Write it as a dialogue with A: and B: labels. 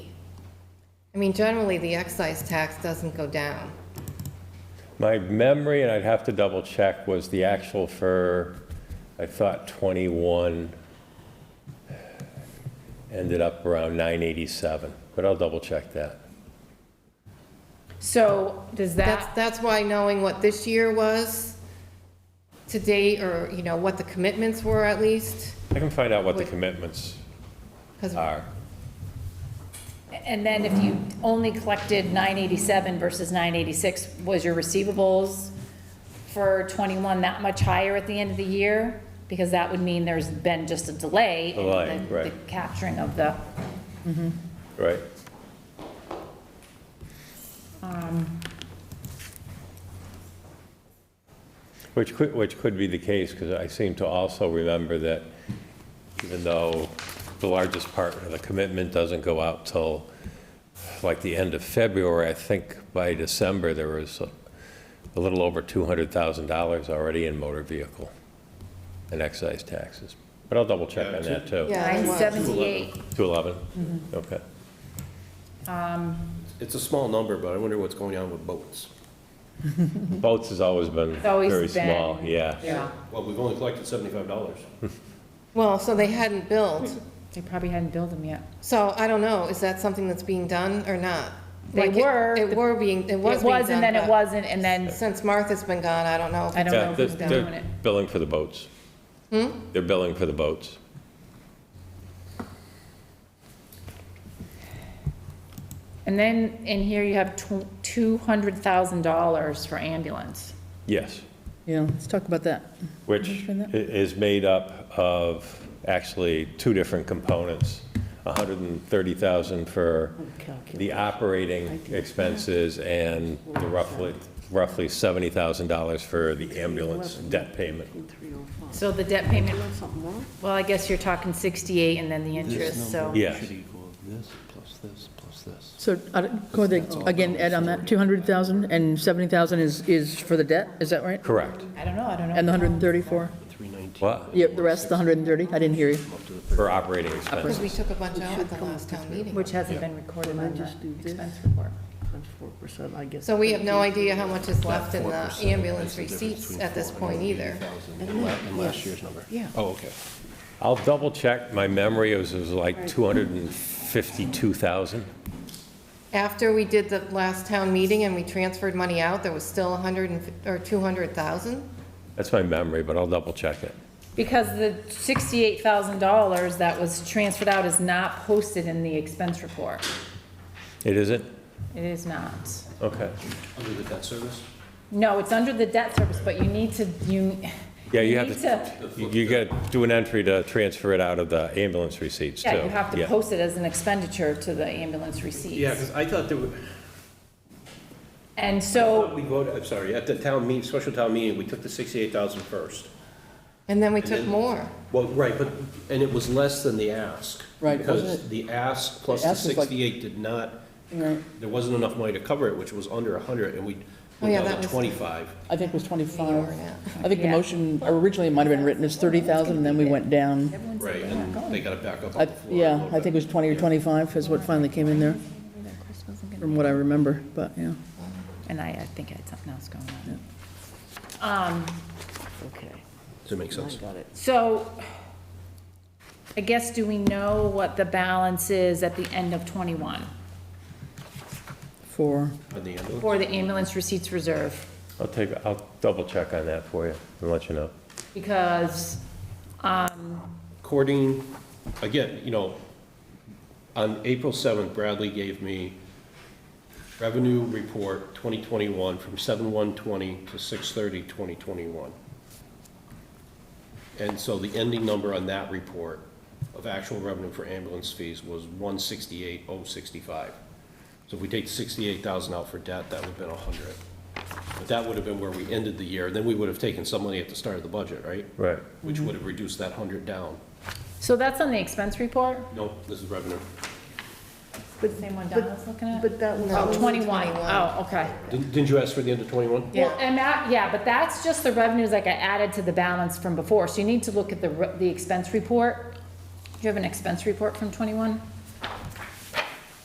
A: mean, generally, the excise tax doesn't go down.
B: My memory, and I'd have to double check, was the actual for, I thought 21 ended up around 987, but I'll double check that.
C: So does
A: That's,
C: that,
A: that's why knowing what this year was to date, or, you know, what the commitments were at least,
B: I can find out what the
A: Would-
B: commitments
A: because
B: are.
C: and then if you only collected 987 versus 986, was your receivables for 21 that much higher at the end of the year? Because that would mean there's been just a delay in
B: Delay,
C: the- the
B: right.
C: capturing of the,
B: Right. Which could, which could be the case, because I seem to also remember that even though the largest part of the commitment doesn't go out till like the end of February, I think by December, there was a- a little over $200,000 already in motor vehicle and excise taxes. But I'll double check on that, too.
A: Yeah, it was.
C: 978.
B: 211? Okay.
D: It's a small number, but I wonder what's going on with boats.
B: Boats has always been
C: It's always
B: very
C: been-
B: small, yeah.
C: Yeah,
D: Well, we've only collected seventy-five dollars.
A: well, so they hadn't billed.
C: they probably hadn't billed them yet.
A: So I don't know, is that something that's being done or not?
C: They
A: Like, it-
C: were.
A: It were being, it was
C: It
A: being
C: was, and
A: done,
C: then it
A: but
C: wasn't, and then,
A: Since Martha's been gone, I don't know. if
C: I don't
B: Yeah,
C: know who's
B: they're-
C: been doing it. Hmm?
B: They're billing for the boats. They're billing for the boats.
C: And then in here you have tw- $200,000 for ambulance.
B: Yes,
E: Yeah, let's talk about that.
B: which i- is made up of actually two different components. 130,000 for
C: Oh,
B: the operating expenses and the roughly, roughly $70,000 for the ambulance debt payment.
C: So the debt payment, well, I guess you're talking 68 and then the interest, so.
B: Yeah.
F: Should equal this, plus this, plus this.
E: So, uh, go with the- again, Ed, on that, 200,000 and 70,000 is, is for the debt, is that right?
B: Correct.
C: I don't know, I don't know.
E: And the 134?
B: What?
E: Yep, the rest, the 130, I didn't hear you.
B: For operating expenses.
A: Because we took a bunch out at the last town meeting.
C: Which hasn't been recorded on
G: just do
C: the
G: this?
C: expense report.
G: Times four percent, I guess.
A: So we have no idea how much is left in the ambulance receipts at this point either.
D: In last year's number.
G: Yeah.
D: Oh, okay.
B: I'll double check. My memory is it was like 252,000.
A: After we did the last town meeting and we transferred money out, there was still a hundred and, fif- or two hundred thousand?
B: That's my memory, but I'll double check it.
C: Because the $68,000 that was transferred out is not posted in the expense report.
B: It isn't?
C: It is not.
B: Okay.
D: Under the debt service?
C: No, it's under the debt service, but you need to, you.
B: Yeah, you have
C: need
B: to, you- you got to do an entry to transfer it out of the ambulance receipts, too.
C: Yeah, you have to post it as an expenditure to the ambulance receipts.
D: Yeah, because I thought that, we-
C: And
D: I
C: so
E: Oh.
D: thought we voted, I'm sorry, at the town meeting, special town meeting, we took the sixty-eight thousand first.
A: And then we took
D: then-
A: more.
D: Well, right, but, and it was less than the ask.
E: Right, wasn't
D: Because the ask plus
E: The
D: the
E: ask was like-
D: sixty-eight did not, there wasn't enough money to cover it, which was under a hundred, and we
A: Oh,
D: went
A: yeah,
D: down
A: that
D: to
A: was-
D: twenty-five.
E: I think it was 25.
A: Yeah.
E: I think the
C: Yeah.
E: motion, originally it might have been written as 30,000, and then we went down.
D: Right, and they got it back up
E: I-
D: on the floor. a
E: Yeah,
D: little
E: I think it
D: bit.
E: was 20 or 25 is what finally came in there, from what I remember, but, yeah.
C: And I, I think I had something else going Um, on.
G: Okay,
D: Does that make
G: I
D: sense?
G: got it.
C: So I guess, do we know what the balance is at the end of '21
E: For,
D: On the end of it?
C: for the ambulance receipts reserve?
B: I'll take, I'll double check on that for you and let you know.
C: Because,
D: According, again, you know, on April 7th, Bradley gave me revenue report 2021 from 7/120 to 6/30/2021. And so the ending number on that report of actual revenue for ambulance fees was 168,065. So if we take 68,000 out for debt, that would have been 100. But that would have been where we ended the year, then we would have taken some money at the start of the budget, right?
B: Right.
D: which would have reduced that 100 down.
C: so that's on the expense report?
D: No, this is revenue.
C: The same one Donna's looking at?
G: But that was.
A: No,
C: Oh, 21.
A: 21.
C: Oh, okay.
D: Didn't didn't you ask for the end of 21?
C: Well, and that, yeah, but that's just the revenues like I added to the balance from before. So you need to look at the, re- the expense report. Do you have an expense report from '21?